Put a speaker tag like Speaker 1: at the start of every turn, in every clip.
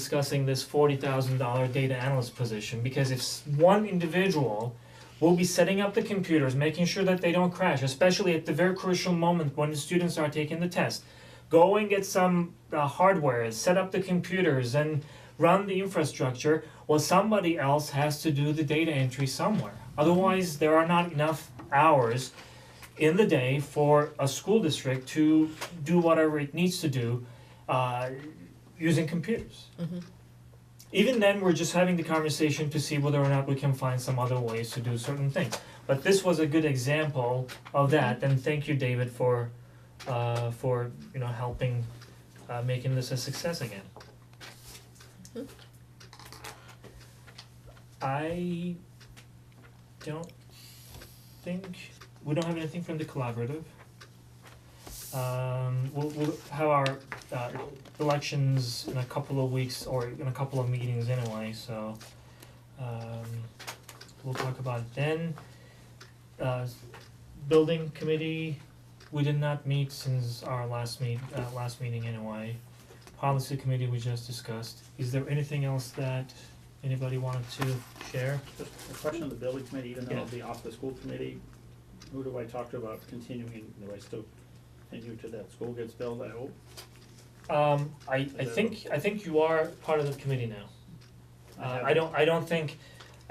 Speaker 1: discussing this forty thousand dollar data analyst position, because if s- one individual will be setting up the computers, making sure that they don't crash, especially at the very crucial moment when the students are taking the test. Go and get some uh, hardware, set up the computers and run the infrastructure, well, somebody else has to do the data entry somewhere. Otherwise, there are not enough hours in the day for a school district to do whatever it needs to do uh, using computers. Even then, we're just having the conversation to see whether or not we can find some other ways to do certain things. But this was a good example of that, and thank you, David, for uh for, you know, helping uh making this a success again. I don't think we don't have anything from the collaborative. Um we'll we'll have our uh elections in a couple of weeks or in a couple of meetings anyway, so um we'll talk about it then. Uh building committee, we did not meet since our last meet uh last meeting anyway. Policy committee we just discussed. Is there anything else that anybody wanted to share?
Speaker 2: Just a question on the building committee, even though
Speaker 1: Yeah.
Speaker 2: it'll be off the school committee, who do I talk to about continuing, do I still continue to that school gets built, I hope?
Speaker 1: Um I I think I think you are part of the committee now. Uh I don't I don't think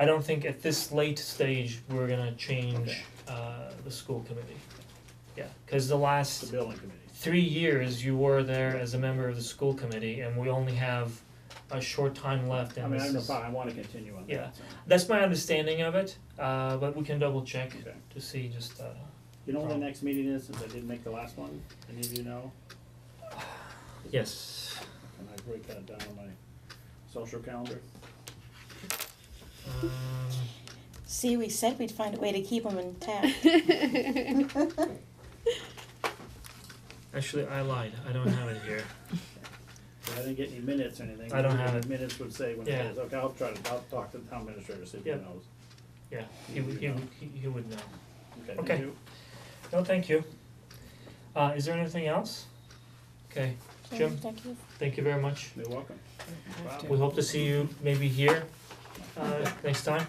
Speaker 1: I don't think at this late stage we're gonna change
Speaker 2: Okay.
Speaker 1: uh the school committee. Yeah, cause the
Speaker 2: The
Speaker 1: last
Speaker 2: building committee,
Speaker 1: three years you were there as a member of the school committee and we only have a short time left
Speaker 2: I
Speaker 1: and
Speaker 2: mean,
Speaker 1: this
Speaker 2: I don't know,
Speaker 1: is-
Speaker 2: if I I wanna continue on
Speaker 1: Yeah.
Speaker 2: that, so,
Speaker 1: That's my understanding of it, uh but we can double check
Speaker 2: okay.
Speaker 1: to see just uh
Speaker 2: You know when
Speaker 1: Problem.
Speaker 2: the next meeting is, since I didn't make the last one, any of you know?
Speaker 1: yes.
Speaker 2: And I break that down on my social calendar,
Speaker 1: Um
Speaker 3: See, we said we'd find a way to keep them intact.
Speaker 1: actually I lied, I don't have it here.
Speaker 2: if I didn't get any minutes or anything.
Speaker 1: I don't
Speaker 2: maybe
Speaker 1: have
Speaker 2: the
Speaker 1: it.
Speaker 2: Minutes would say when
Speaker 1: Yeah.
Speaker 2: it is, okay, I'll try to, I'll talk to the town administrator, see if he
Speaker 1: Yep.
Speaker 2: knows,
Speaker 1: Yeah, he would he would he would know.
Speaker 2: okay,
Speaker 1: Okay.
Speaker 2: thank you.
Speaker 1: No, thank you. Uh is there anything else? Okay, Jim?
Speaker 3: Thank you.
Speaker 1: thank you very much.
Speaker 2: You're welcome.
Speaker 1: We hope to see you maybe here uh next time.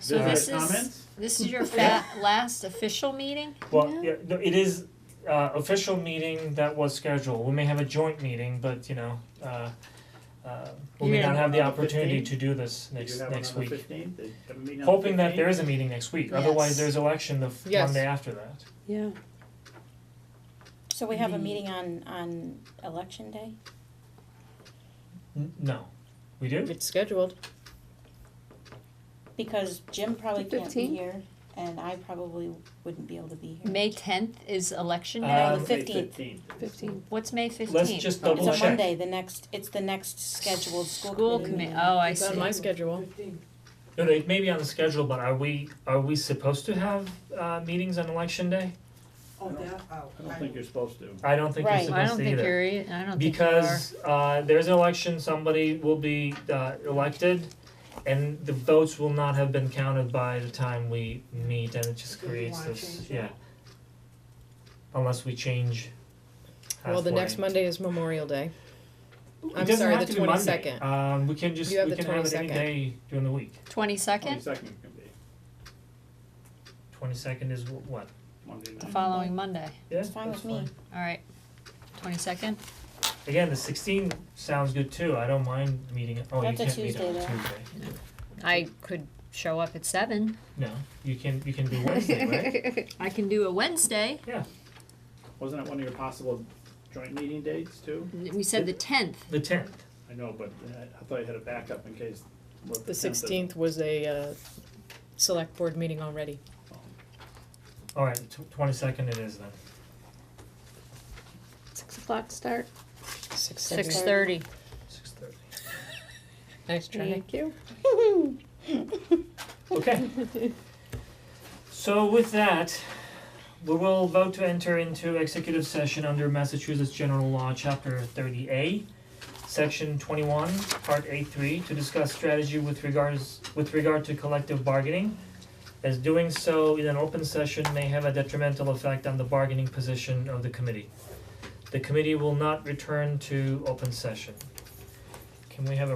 Speaker 4: So
Speaker 2: Other
Speaker 4: this is,
Speaker 2: comments?
Speaker 4: this is your fa- last official meeting?
Speaker 1: Well, yeah, no, it is uh official meeting that was scheduled. We may have a joint meeting, but you know, uh uh we may
Speaker 4: You're
Speaker 1: not
Speaker 4: gonna
Speaker 1: have the
Speaker 2: have one on the
Speaker 1: opportunity
Speaker 2: 15th?
Speaker 1: to do this
Speaker 2: Did
Speaker 1: next
Speaker 2: you have one
Speaker 1: next
Speaker 2: on the
Speaker 1: week.
Speaker 2: 15th? Did- have a meeting on the
Speaker 1: Hoping that
Speaker 2: 15th?
Speaker 1: there is a meeting next week, otherwise
Speaker 4: Yes.
Speaker 1: there's election the f-
Speaker 5: Yes.
Speaker 1: Monday after that.
Speaker 5: Yeah.
Speaker 3: So we have a
Speaker 5: The-
Speaker 3: meeting on, on election day?
Speaker 1: N- No, we do?
Speaker 5: It's scheduled.
Speaker 3: Because Jim probably
Speaker 5: The
Speaker 3: can't be
Speaker 5: 15th?
Speaker 3: here, and I probably wouldn't be able to be here.
Speaker 4: May tenth is election
Speaker 1: Uh,
Speaker 4: day?
Speaker 3: the
Speaker 2: May
Speaker 3: 15th.
Speaker 2: 15th.
Speaker 5: Fifteen.
Speaker 4: What's May fifteenth?
Speaker 1: Let's just double check.
Speaker 3: It's a Monday, the next, it's the next scheduled school
Speaker 4: School
Speaker 3: committee
Speaker 4: committee,
Speaker 3: meeting.
Speaker 4: oh, I
Speaker 5: It's on my
Speaker 4: see.
Speaker 5: schedule.
Speaker 1: No, no, it may be on the schedule, but are we are we supposed to have uh meetings on election day?
Speaker 6: Oh,
Speaker 2: I don't- I don't think you're supposed to.
Speaker 1: I don't think you're
Speaker 3: Right.
Speaker 1: supposed to either.
Speaker 4: I don't think you're, e- I don't think you are.
Speaker 1: because uh there's an election, somebody will be uh elected and the votes will not have been counted by the time we meet and it just
Speaker 6: So you
Speaker 1: creates
Speaker 6: wanna
Speaker 1: this,
Speaker 6: change it?
Speaker 1: yeah. Unless we change halfway.
Speaker 5: Well, the next Monday is Memorial Day.
Speaker 1: It
Speaker 5: I'm
Speaker 1: doesn't
Speaker 5: sorry,
Speaker 1: have
Speaker 5: the
Speaker 1: to be Monday.
Speaker 5: 22nd.
Speaker 1: Um we can just,
Speaker 5: You have
Speaker 1: we
Speaker 5: the
Speaker 1: can have it any
Speaker 5: 22nd.
Speaker 1: day during the week.
Speaker 4: Twenty-second,
Speaker 2: Twenty-second can be,
Speaker 1: Twenty second is wh- what?
Speaker 2: Monday night.
Speaker 4: the following Monday,
Speaker 1: Yeah,
Speaker 3: It's fine
Speaker 1: that's
Speaker 3: with me.
Speaker 1: fine.
Speaker 4: alright. Twenty-second,
Speaker 1: Again, the sixteen sounds good too, I don't mind meeting, oh, you
Speaker 3: That's a
Speaker 1: can't meet on
Speaker 3: Tuesday,
Speaker 1: Tuesday.
Speaker 3: though.
Speaker 4: I could show up at seven.
Speaker 1: No, you can, you can do Wednesday, right?
Speaker 4: I can do a Wednesday,
Speaker 2: Wasn't that one of your possible joint meeting dates too?
Speaker 4: we said the tenth,
Speaker 1: The tenth,
Speaker 2: I know, but I I thought you had a backup in case. what
Speaker 5: The
Speaker 2: tenth is.
Speaker 5: sixteenth was a uh, select board meeting already.
Speaker 1: alright, twenty second it is then.
Speaker 5: Six o'clock start. Six thirty.
Speaker 4: six thirty.
Speaker 1: Six thirty.
Speaker 5: Nice try. Thank you.
Speaker 1: Okay. So with that, we will vote to enter into executive session under Massachusetts General Law, Chapter thirty A, Section twenty-one, Part A three, to discuss strategy with regards, with regard to collective bargaining. As doing so in an open session may have a detrimental effect on the bargaining position of the committee. The committee will not return to open session. Can we have a